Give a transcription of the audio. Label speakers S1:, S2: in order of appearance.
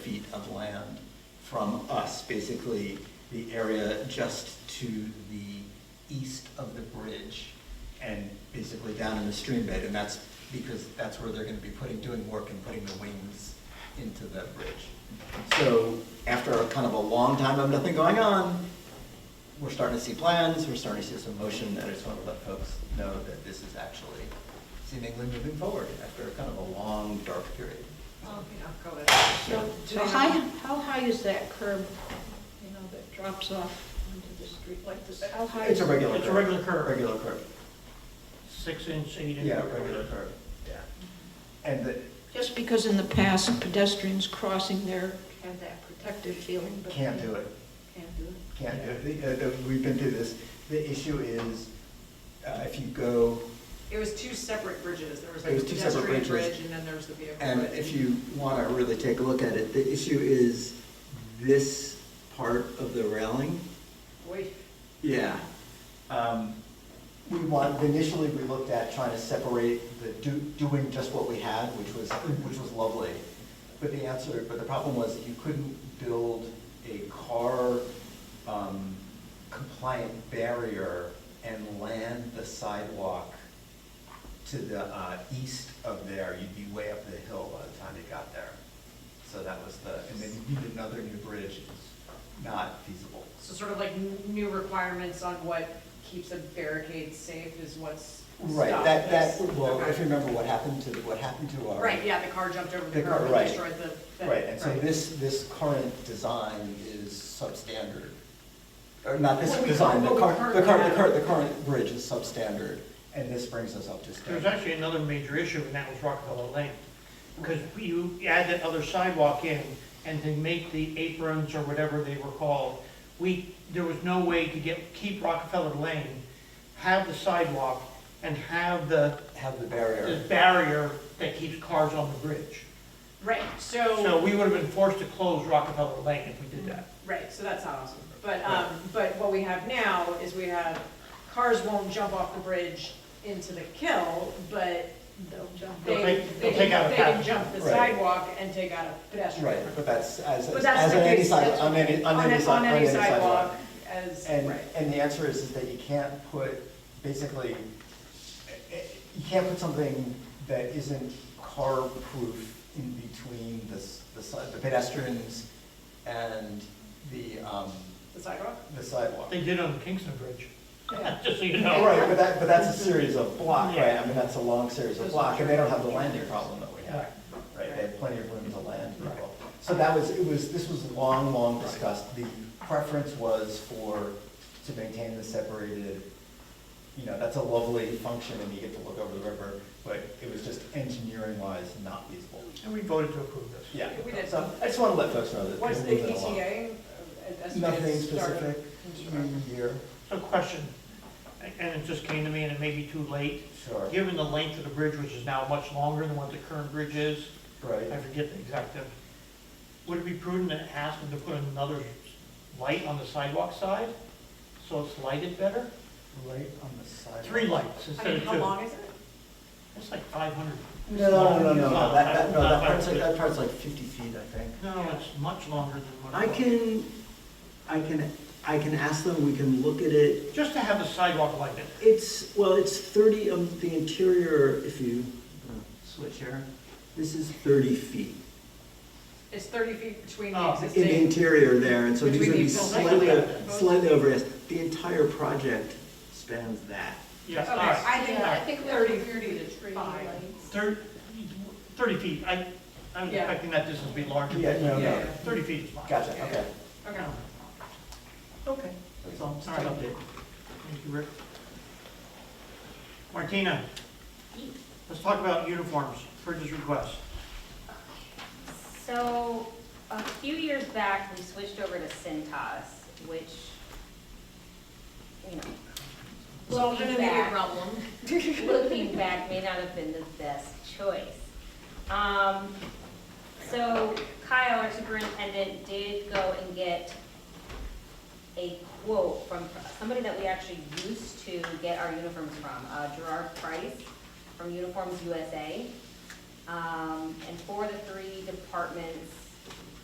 S1: of land from us, basically the area just to the east of the bridge and basically down in the stream bed, and that's because that's where they're gonna be putting, doing work and putting the wings into the bridge. So after a kind of a long time of nothing going on, we're starting to see plans, we're starting to see some motion, and I just want to let folks know that this is actually seemingly moving forward after kind of a long, dark period.
S2: Oh, yeah, go ahead.
S3: So,
S2: Do
S3: how
S2: they
S3: high,
S2: have-
S3: how high is that curb, you know, that drops off onto the street like this? How high?
S1: It's a regular curve.
S4: It's a regular curve.
S1: Regular curve.
S4: Six inch, eight inch.
S1: Yeah, regular curve.
S4: Yeah.
S1: And the,
S3: Just because in the past pedestrians crossing there have that protective feeling, but.
S1: can't do it.
S3: Can't do it.
S1: Can't do it. The- uh, the- We've been through this. The issue is, uh, if you go
S2: It was two separate bridges, there was
S1: It
S2: like
S1: was
S2: a
S1: two separate
S2: pedestrian
S1: bridges.
S2: bridge and then there was the vehicle bridge.
S1: And if you want to really take a look at it, the issue is this part of the railing.
S2: Boy,
S1: Yeah. Um, We want, initially, we looked at trying to separate the, do- doing just what we had, which was, which was lovely. But the answer, but the problem was that you couldn't build a car um, compliant barrier and land the sidewalk to the uh, east of there, you'd be way up the hill by the time you got there. So that was the, and then you need another new bridge, it's not feasible.
S2: so sort of like n- new requirements on what keeps a barricade safe is what's.
S1: Right,
S2: stopped
S1: that, that,
S2: this.
S1: well,
S2: Okay.
S1: if you remember what happened to, what happened to our.
S2: Right, yeah, the car jumped over
S1: The
S2: the
S1: car,
S2: curb
S1: right.
S2: and destroyed the. thing,
S1: Right, and so
S2: right.
S1: this, this current design is substandard. Or not this
S2: What we
S1: design, the
S2: cur- what we
S1: current, the current, the
S2: currently
S1: current, the current bridge is substandard, and this brings us up to
S4: There's
S1: standard.
S4: actually another major issue, and that was Rockefeller Lane. Because you add that other sidewalk in, and to make the aprons or whatever they were called, we, there was no way to get, keep Rockefeller Lane, have the sidewalk, and have the,
S1: Have the
S4: the
S1: barrier.
S4: barrier that keeps cars on the bridge.
S2: Right,
S4: So we would have been forced to close Rockefeller Lane if we did that.
S2: Right, so that's not awesome. But, um, but what we have now is we have, cars won't jump off the bridge into the kill, but
S3: They'll jump.
S4: They'll
S2: they,
S4: take-
S2: they
S4: they'll take
S2: can,
S4: out a
S2: they can
S4: path.
S2: jump the
S1: Right.
S2: sidewalk and take out a pedestrian.
S1: Right, but that's, as,
S2: But that's
S1: as
S2: the
S1: on any
S2: case,
S1: side,
S2: that's-
S1: on any, on
S2: On
S1: any
S2: a-
S1: side,
S2: on any sidewalk, as,
S1: And,
S2: right.
S1: and the answer is, is that you can't put, basically, eh, eh, you can't put something that isn't car-proof in between the, s- the si- the pedestrians and the, um,
S2: The sidewalk?
S1: the sidewalk.
S4: They did on Kingston Bridge,
S1: Yeah.
S4: just so you know.
S1: Right, but that, but that's a series of block, right?
S4: Yeah.
S1: I mean, that's a long series of
S2: Those
S1: block, and they don't have the
S2: are-
S1: landing problem that we have. Right, they
S2: Right.
S1: have plenty of room to land people. So that was, it was, this was long, long discussed. The preference was for, to maintain the separated, you know, that's a lovely function and you get to look over the river, but it was just engineering wise not feasible.
S4: And we voted to approve this.
S1: Yeah,
S2: We did.
S1: so I just want to let folks know that.
S2: What's
S1: we're
S2: the
S1: moving along.
S2: ETA? uh, as- as
S1: Nothing
S2: it's started
S1: specific,
S2: construction?
S1: mm, year,
S4: So question, and it just came to me, and it may be too late.
S1: sure,
S4: Given the length of the bridge, which is now much longer than what the current bridge is, I
S1: right.
S4: forget the exact, uh, would it be prudent to ask them to put another light on the sidewalk side? So it's lighted better?
S1: Right on the side.
S4: Three lights
S2: I
S4: instead
S2: mean,
S4: of
S2: how
S4: two.
S2: long is it?
S4: It's like five hundred.
S1: No, no, no, no, no, that, that, no,
S2: Uh,
S1: that
S4: Not
S1: part's, like-
S4: 500.
S1: that part's like fifty feet, I think.
S4: No, it's much longer than what.
S5: I
S4: it was.
S5: can, I can, I can ask them, we can look at it.
S4: Just to have the sidewalk lighted.
S5: It's, well, it's 30 of the interior, if you uh, switch here, this is 30 feet.
S2: It's thirty feet between
S4: Oh,
S5: In
S2: the
S4: in the
S5: the
S2: existing,
S5: interior there, and so
S2: Which
S5: these
S2: we
S5: would be
S2: need to look
S5: slightly,
S2: at.
S5: slightly over, the entire project spans that.
S4: Yes,
S2: Okay,
S4: all right.
S2: I think
S3: Yeah, I
S2: like
S3: think we
S2: thirty,
S3: have to
S2: thirty to
S3: Three
S2: five.
S3: lights.
S4: Thir- Thirty feet. I, I was
S2: Yeah.
S4: expecting that distance to be larger.
S1: Yeah, no,
S2: Yeah.
S1: no,
S4: Thirty feet is fine.
S1: gotcha, okay.
S2: Okay.
S5: Okay. That's all, just
S4: All
S5: an
S4: right.
S5: update.
S4: Thank you, Rick. Martina, let's talk about uniforms, purchase request.
S6: So, a few years back, we switched over to Cintas, which, you know.
S2: Well,
S6: looking
S2: gonna be a
S6: back-
S2: problem.
S6: Looking back, may not have been the best choice. Um, so Kyle, our superintendent, did go and get a quote from somebody that we actually used to get our uniforms from, uh, Gerard Price from Uniforms USA. Um, and for the three departments,